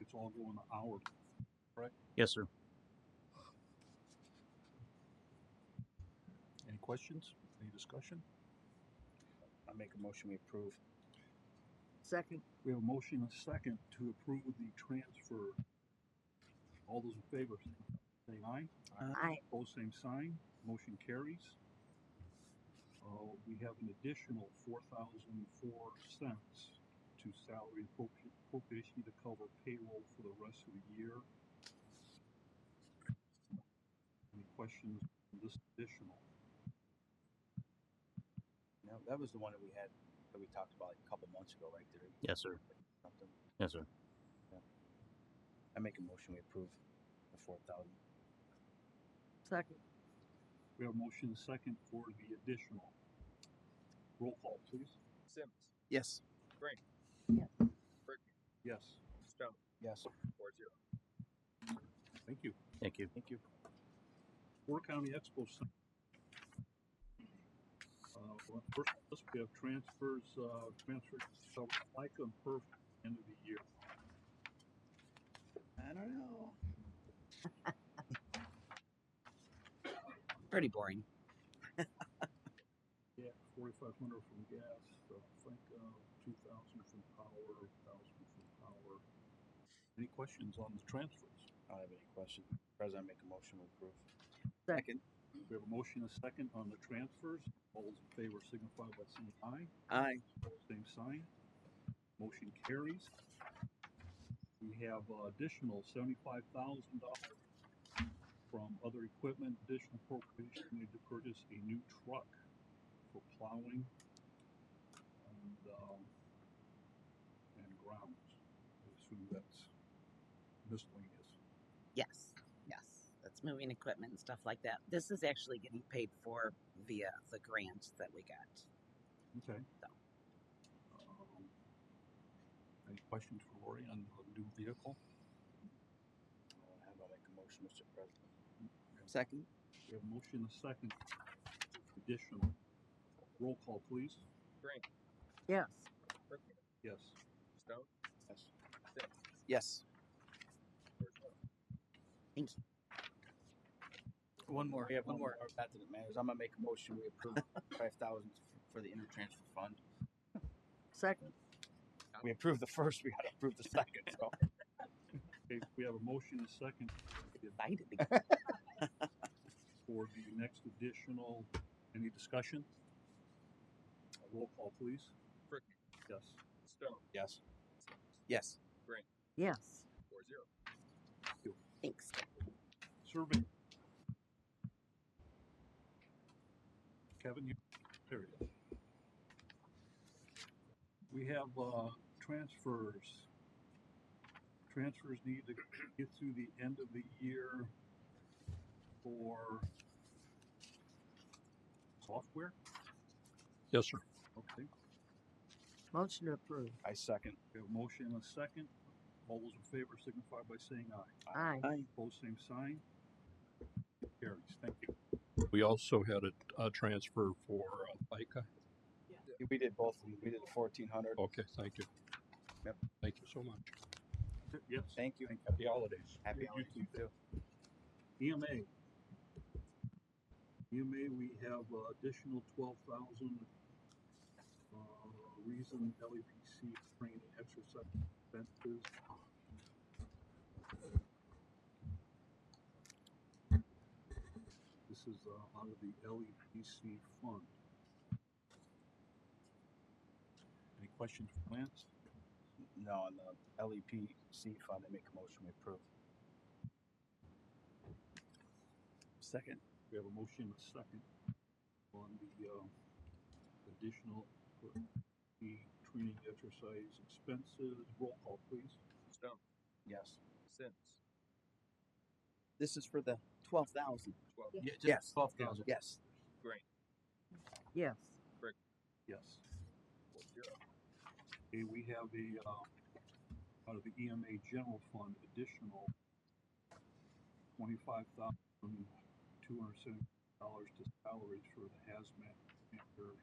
it's all going to our Yes, sir. Any questions? Any discussion? I make a motion, we approve. Second. We have a motion and a second to approve the transfer. All those in favor, say aye. Aye. Pose same sign, motion carries. Uh, we have an additional four thousand four cents to salary appropri- appropriation to cover payroll for the rest of the year. Any questions on this additional? Now, that was the one that we had, that we talked about like a couple months ago, right there. Yes, sir. Something. Yes, sir. I make a motion, we approve the four thousand. Second. We have a motion and a second for the additional. Roll call, please. Sims, Yes. Yes, Stone, Yes. four zero. thank you. Thank you. Thank you. Porter County Expo Center. Uh, well, first, of all, we have transfers, uh, transfers, so FICA and PERF end of the year. I don't know. Pretty boring. Yeah, forty-five hundred from gas, uh, FICA, two thousand from power, thousand from power. Any questions on the transfers? I don't have any question. President, I make a motion, we approve. Second. We have a motion, and a second on the transfers. All those in favor signify by saying aye. Aye. Same sign. Motion carries. We have uh, additional seventy-five thousand dollars from other equipment, additional appropriation needed to purchase a new truck for plowing and, um, and grounds. I assume that's miscellaneous. Yes, yes. That's moving equipment and stuff like that. This is actually getting paid for via the grant that we got. Okay. So. Um, Any questions for Lori on the new vehicle? Uh, How about I make a motion, Mr. President? Second. We have a motion and a second. Additional. Roll call, please. Yes. Berkman, Yes. Stone, Yes. Sims, Yes. four zero. One more. We have one one more. Not that it matters. I'm gonna make a motion, we approve five thousand for the intertransfer fund. Second. We approved the first, we gotta approve the second, so. Okay, we have a motion and a second Excited to for the next additional. Any discussion? Roll call, please. Berkman, Yes. Stone, Yes. Sims, Yes. Yes. four zero. Thanks. Survey. Kevin, you, period. We have, uh, transfers. Transfers need to get through the end of the year for software? Yes, sir. Okay, Motion to approve. I second. we have a motion and a second. All those in favor signify by saying aye. Aye. Opposed, same sign. Carries, thank you. We also had a, a transfer for uh, FICA. We did both. of 'em. We did the fourteen hundred. Okay, thank you. Yep. Thank you so much. Yes. Thank you. Happy holidays. Happy You holidays. too. EMA. EMA, E we have uh, additional twelve thousand, uh, reason LEPC training exercise expenses. This is, uh, out of the LEPC fund. Any questions for Lance? No, on the LEPC fund, I make a motion, we approve. Second. We have a motion and a second on the, uh, additional, uh, the training exercise expenses. Roll call, please. Stone, Yes. Sims, This is for the twelve thousand. twelve. Yeah. Yes. Twelve thousand. Yes. Yes. Yes. Okay, we have the, uh, out of the EMA general fund additional twenty-five thousand, two hundred seventy dollars to salaries for the hazmat manager